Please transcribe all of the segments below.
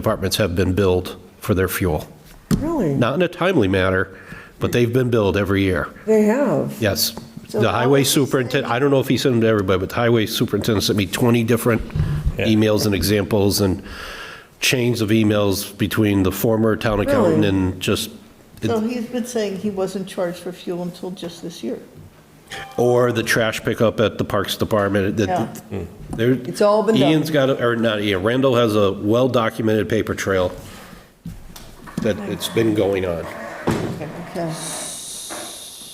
departments have been billed for their fuel. Really? Not in a timely manner, but they've been billed every year. They have? Yes. So The how highway is this- superintendent, I don't know if he sent them to everybody, but the highway superintendent sent me 20 different emails and examples and chains of emails between the former town accountant Really? and just, So he's been saying he wasn't charged for fuel until just this year. or the trash pickup at the Parks Department. that- Yeah. there- It's all been done. Ian's got, a- or not Ian, Randall has a well-documented paper trail that it's been going on. Okay.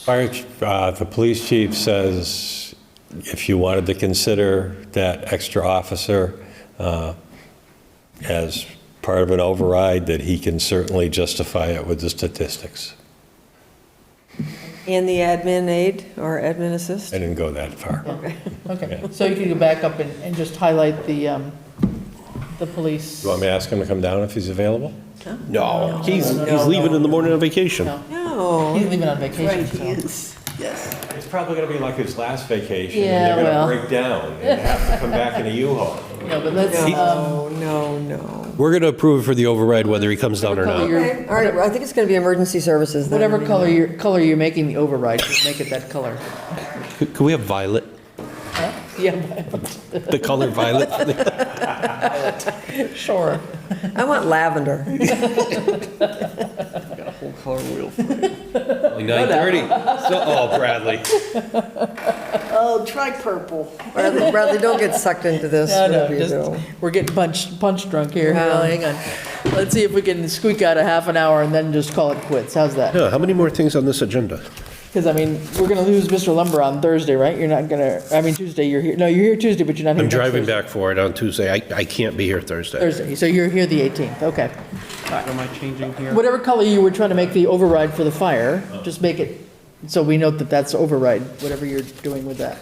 Fire, ch- uh, the police chief says if you wanted to consider that extra officer uh, as part of an override, that he can certainly justify it with the statistics. And the admin aide or admin assist? I didn't go that far. Okay, so you can go back up and, and just highlight the, um, the police. You want me to ask him to come down if he's available? No, he's, he's leaving in the morning on vacation. No. No. He's leaving on vacation, so. Yes, yes. It's probably going to be like his last vacation, and they're Yeah, gonna well. break down and have to come back in a U-Haul. No, but let's, um, No, no, no. We're going to approve for the override whether he comes down or Color not. your- Okay, All right, well, I think it's going to be emergency services then. whatever color you're, color you're making the override, just make it that color. Could could we have violet? Yeah, The color violet? sure. I want lavender. Nine thirty. So, oh, Bradley. Oh, try purple. Bradley, Bradley, don't get sucked into this, No, no, whatever you just- do. We're getting punch, punch drunk here. Wow. Well, Hang on. Let's see if we can squeak out a half an hour and then just call it quits. How's that? Yeah, how many more things on this agenda? Because, I mean, we're going to lose Mr. Lumber on Thursday, right? You're not going to, I mean, Tuesday, you're here, no, you're here Tuesday, but you're not here I'm next driving Thursday. back for it on Tuesday. I, I can't be here Thursday. Thursday, so you're here the 18th, okay. Am I changing here? Whatever color you were trying to make the override for the fire, just make it, so we note that that's override, whatever you're doing with that.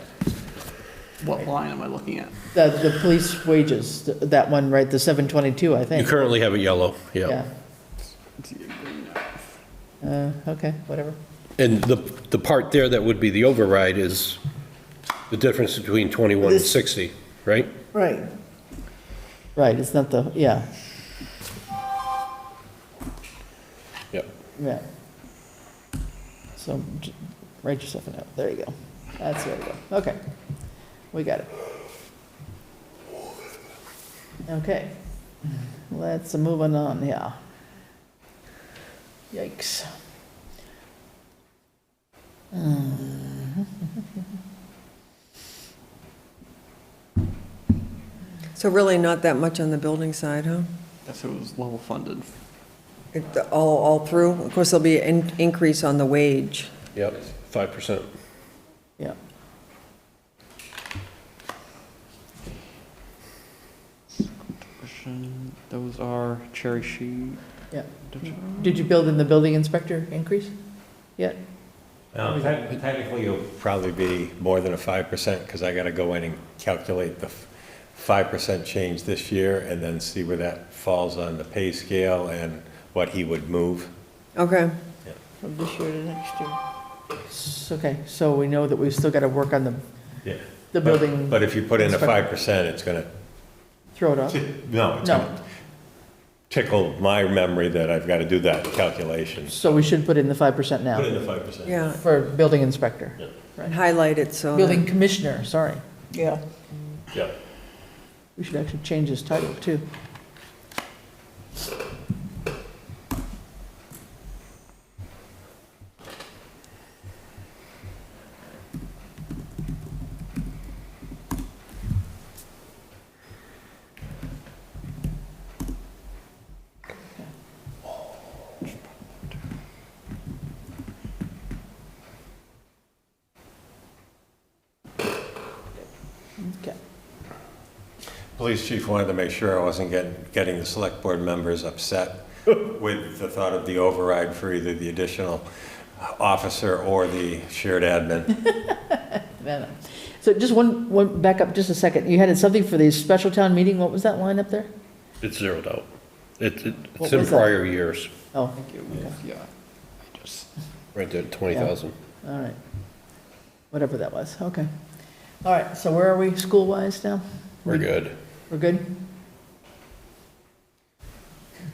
What line am I looking at? The, the police wages, th- that one, right, the 722, I You think. currently have it yellow, Yeah. yeah. Uh, okay, whatever. And the, the part there that would be the override is the difference between 21 and 60, right? Right. Right, it's not the, yeah, Yep. yeah. So j- write yourself a note, there you go. That's the way to go, okay. We got it. Okay, let's move on, on, yeah. Yikes. So really not that much on the building side, huh? Guess it was level funded. It- All, all through? Of course, there'll be an increase on the wage. Yep, 5%. Yeah. Tuition, Those are cherry sheet. Yeah. Did you build in the building inspector increase yet? Technically, it'll probably be more than a 5% because I got to go in and calculate the f- 5% change this year and then see where that falls on the pay scale and what he would move. Okay. From this year to next year. S- Okay, so we know that we've still got to work on the, Yeah. the building, But if you put in a inspector. 5%, it's going to throw it off. No, it's No. gonna tickle my memory that I've got to do that calculation. So we should put in the 5% Put in now the five percent. Yeah, for building inspector, and highlight it so. that- building commissioner, sorry. Yeah. Yeah. We should actually change his title too. Okay. Police chief wanted to make sure I wasn't getting, getting the select board members upset with the thought of the override for either the additional officer or the shared admin. No, no. So just one, one, back up just a second. You had something for the special town meeting. What was that line up there? It's zeroed out. It- it- What It's in was that? prior years, Oh, It was, yeah. I just, right there, 20,000. all right. Whatever that was, okay. All right, so where are we school-wise now? We're good. We're good?